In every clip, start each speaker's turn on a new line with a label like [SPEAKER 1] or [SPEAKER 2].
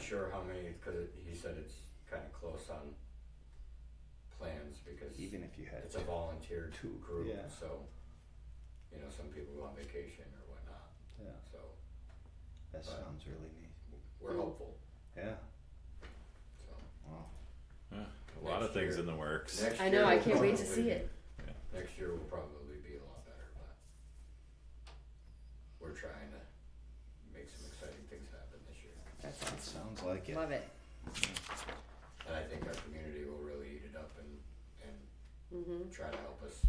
[SPEAKER 1] sure how many, cause it- he said it's kinda close on plans because
[SPEAKER 2] even if you had
[SPEAKER 1] it's a volunteer
[SPEAKER 2] Two,
[SPEAKER 1] group,
[SPEAKER 2] yeah.
[SPEAKER 1] so, you know, some people go on vacation or whatnot,
[SPEAKER 2] yeah
[SPEAKER 1] so But-
[SPEAKER 2] that sounds really neat
[SPEAKER 3] Hmm.
[SPEAKER 1] we're hopeful,
[SPEAKER 2] yeah
[SPEAKER 1] so.
[SPEAKER 2] wow
[SPEAKER 4] A lot
[SPEAKER 1] Next
[SPEAKER 4] of things
[SPEAKER 1] year.
[SPEAKER 4] in the works.
[SPEAKER 1] Next
[SPEAKER 3] I
[SPEAKER 1] year
[SPEAKER 3] know, I
[SPEAKER 1] we'll
[SPEAKER 3] can't wait to
[SPEAKER 1] probably-
[SPEAKER 3] see it.
[SPEAKER 1] Next year will probably be a lot better, but we're trying to make some exciting things happen this year.
[SPEAKER 3] That's
[SPEAKER 2] it sounds like it
[SPEAKER 3] Love it.
[SPEAKER 1] And I think our community will really eat it up and, and
[SPEAKER 3] Mm-hmm.
[SPEAKER 1] try to help us,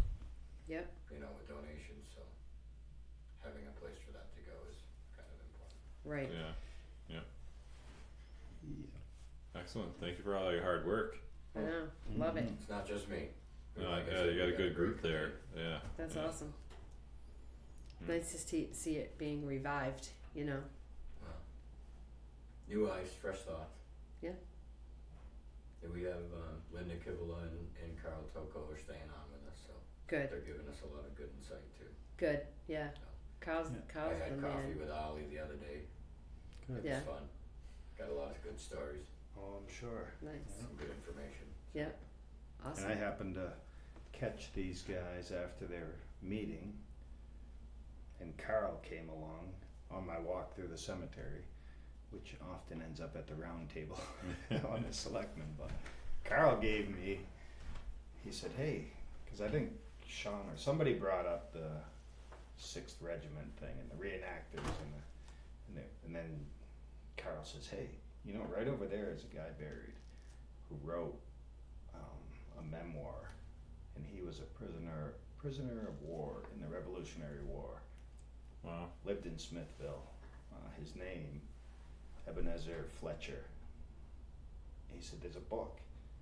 [SPEAKER 3] Yep.
[SPEAKER 1] you know, with donations, so having a place for that to go is kind of important.
[SPEAKER 3] Right.
[SPEAKER 4] Yeah,
[SPEAKER 2] yeah.
[SPEAKER 4] excellent. Thank you for all your hard work.
[SPEAKER 3] I know. Love it.
[SPEAKER 2] Mhm.
[SPEAKER 1] It's not just me.
[SPEAKER 4] Uh,
[SPEAKER 1] Like I
[SPEAKER 4] yeah,
[SPEAKER 1] said,
[SPEAKER 4] you got
[SPEAKER 1] we
[SPEAKER 4] a good group
[SPEAKER 1] great
[SPEAKER 4] there.
[SPEAKER 1] community.
[SPEAKER 4] Yeah.
[SPEAKER 3] That's
[SPEAKER 1] Mm-hmm.
[SPEAKER 4] yeah.
[SPEAKER 3] awesome.
[SPEAKER 4] Mm.
[SPEAKER 3] Nice to see, see it being revived. You know.
[SPEAKER 1] New eyes, fresh thoughts.
[SPEAKER 3] Yeah.
[SPEAKER 1] And we have uh, Linda Kivola and, and Carl Toko are staying on with us, so
[SPEAKER 3] Good.
[SPEAKER 1] they're giving us a lot of good insight too.
[SPEAKER 3] Good. Yeah. Kyle's
[SPEAKER 2] Yeah.
[SPEAKER 1] I
[SPEAKER 3] Kyle's the
[SPEAKER 1] had coffee
[SPEAKER 3] man.
[SPEAKER 1] with Ollie the other day. It
[SPEAKER 2] Good.
[SPEAKER 3] Yeah.
[SPEAKER 1] was fun. Got a lot of good stories,
[SPEAKER 2] oh i'm sure
[SPEAKER 3] Nice.
[SPEAKER 1] some good information.
[SPEAKER 2] And
[SPEAKER 3] Awesome.
[SPEAKER 2] I happened to catch these guys after their meeting, and Carl came along on my walk through the cemetery, which often ends up at the round table on the selectmen. But Carl gave me, he said, hey, because I think Sean or somebody brought up the Sixth Regiment thing and the reenactors and the, and, the, and then Carl says, hey, you know, right over there is a guy buried who wrote um, a memoir, and he was a prisoner prisoner of war in the Revolutionary War.
[SPEAKER 4] Wow.
[SPEAKER 2] Lived in Smithville. Uh, his name, Ebenezer Fletcher. He said, "There's a book."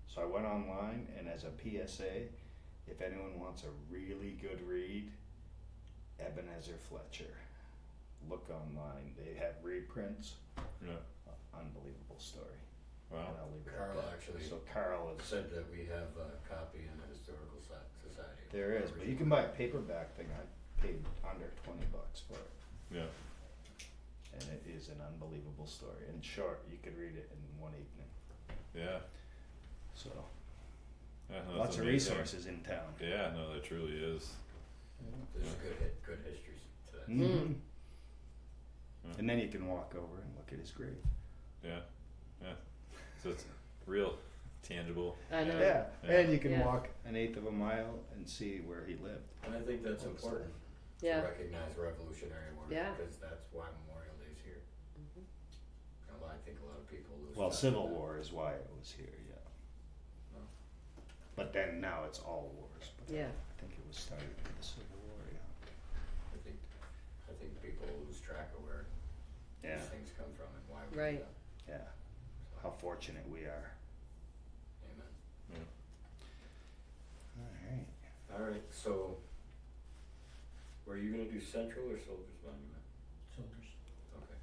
[SPEAKER 2] So I went online, and as a PSA, if anyone wants a really good read, Ebenezer Fletcher. Look online. They have reprints.
[SPEAKER 4] Yeah.
[SPEAKER 2] Unbelievable story.
[SPEAKER 4] Wow.
[SPEAKER 2] And I'll leave it at
[SPEAKER 1] Carl
[SPEAKER 2] that.
[SPEAKER 1] actually-
[SPEAKER 2] So Carl is
[SPEAKER 1] Said that we have a copy in the historical so- society.
[SPEAKER 2] There is, but you can buy a paperback thing. I paid under twenty bucks for it,
[SPEAKER 4] Yeah.
[SPEAKER 2] and it is an unbelievable story. In short, you could read it in one evening.
[SPEAKER 4] Yeah.
[SPEAKER 2] So
[SPEAKER 4] yeah no, that's
[SPEAKER 2] lots of
[SPEAKER 4] amazing.
[SPEAKER 2] resources in town.
[SPEAKER 4] Yeah. No, that truly is.
[SPEAKER 1] There's good hit, good histories to that.
[SPEAKER 3] Hmm.
[SPEAKER 2] Mhm.
[SPEAKER 4] Yeah.
[SPEAKER 2] And then you can walk over and look at his grave.
[SPEAKER 4] Yeah. Yeah. So it's real, tangible.
[SPEAKER 3] I know.
[SPEAKER 2] Yeah, and you can
[SPEAKER 3] Yeah.
[SPEAKER 2] walk an eighth of a mile and see where he lived.
[SPEAKER 1] And I think that's
[SPEAKER 2] Awesome.
[SPEAKER 1] important to
[SPEAKER 3] Yeah.
[SPEAKER 1] recognize Revolutionary War
[SPEAKER 3] Yeah.
[SPEAKER 1] because that's why Memorial Day's here. And a lot- I think a lot of people lose.
[SPEAKER 2] Well,
[SPEAKER 1] track of
[SPEAKER 2] Civil
[SPEAKER 1] that.
[SPEAKER 2] War is why it was here. Yeah.
[SPEAKER 1] Oh.
[SPEAKER 2] But then now it's all wars. But
[SPEAKER 3] Yeah.
[SPEAKER 2] I think it was started with the Civil War. Yeah.
[SPEAKER 1] I think, I think people lose track of where
[SPEAKER 2] Yeah.
[SPEAKER 1] these things come from and why we. do
[SPEAKER 3] Right.
[SPEAKER 1] them.
[SPEAKER 2] Yeah. How fortunate we are.
[SPEAKER 1] Amen.
[SPEAKER 2] All right.
[SPEAKER 1] All right, so were you gonna do Central or Soldiers Monument?
[SPEAKER 5] Soldiers.
[SPEAKER 1] Okay.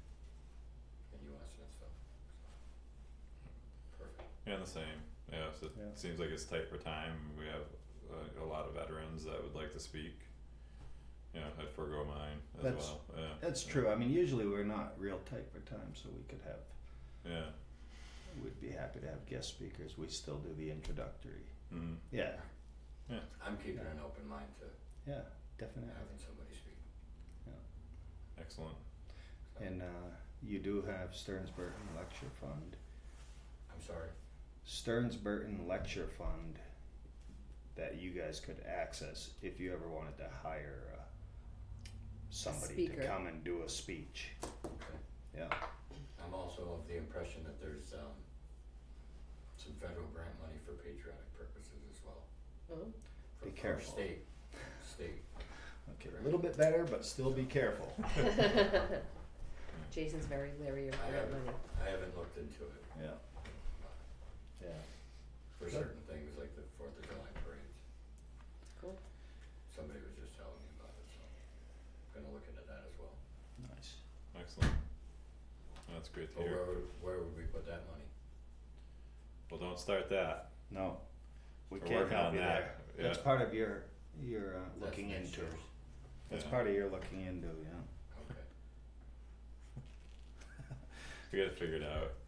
[SPEAKER 1] And you want Smithville. Perfect.
[SPEAKER 4] Yeah. The same. Yeah. So it
[SPEAKER 2] Yeah.
[SPEAKER 4] seems like it's tight for time. We have uh, a lot of veterans that would like to speak. Yeah. I'd forego mine as
[SPEAKER 2] That's-
[SPEAKER 4] well. Yeah.
[SPEAKER 2] That's
[SPEAKER 4] yeah,
[SPEAKER 2] true. I mean, usually we're not real tight for time, so we could have,
[SPEAKER 4] Yeah.
[SPEAKER 2] we'd be happy to have guest speakers. We still do the introductory.
[SPEAKER 4] Mm.
[SPEAKER 2] Yeah,
[SPEAKER 1] I'm keeping an open mind to
[SPEAKER 2] yeah, definitely.
[SPEAKER 1] having somebody speak.
[SPEAKER 4] Excellent.
[SPEAKER 2] And uh, you do have Stearns Burton Lecture Fund.
[SPEAKER 1] I'm sorry,
[SPEAKER 2] Stearns Burton Lecture Fund that you guys could access if you ever wanted to hire uh, somebody to
[SPEAKER 3] speaker.
[SPEAKER 2] come and do a speech.
[SPEAKER 1] okay.
[SPEAKER 2] Yeah.
[SPEAKER 1] I'm also of the impression that there's, um, some federal grant money for patriotic purposes as well.
[SPEAKER 3] Oh.
[SPEAKER 1] for-
[SPEAKER 2] Be
[SPEAKER 1] for
[SPEAKER 2] careful.
[SPEAKER 1] State, state.
[SPEAKER 2] Okay, a little bit better, but still be careful.
[SPEAKER 3] Mm-hmm. Jason's very leery of
[SPEAKER 1] Uh-huh. I
[SPEAKER 3] grant
[SPEAKER 1] haven't-
[SPEAKER 3] money.
[SPEAKER 1] I haven't looked into it
[SPEAKER 2] Yeah. Yeah.
[SPEAKER 1] for
[SPEAKER 2] Good.
[SPEAKER 1] certain things like the Fourth of July parades.
[SPEAKER 3] Cool.
[SPEAKER 1] Somebody was just telling me about it, so I'm gonna look into that as well.
[SPEAKER 2] Nice.
[SPEAKER 4] Excellent. That's great to
[SPEAKER 1] But
[SPEAKER 4] hear.
[SPEAKER 1] where would, where would we put that money?
[SPEAKER 4] Well, don't start that.
[SPEAKER 2] No, we
[SPEAKER 4] We're
[SPEAKER 2] can't
[SPEAKER 4] working
[SPEAKER 2] help
[SPEAKER 4] on
[SPEAKER 2] you there.
[SPEAKER 4] that. Yeah.
[SPEAKER 2] That's part of your, your uh,
[SPEAKER 1] That's
[SPEAKER 2] looking
[SPEAKER 1] next
[SPEAKER 2] into.
[SPEAKER 1] year's.
[SPEAKER 2] That's
[SPEAKER 4] Yeah.
[SPEAKER 2] part of your looking into, yeah.
[SPEAKER 1] Okay.
[SPEAKER 4] We gotta figure it out.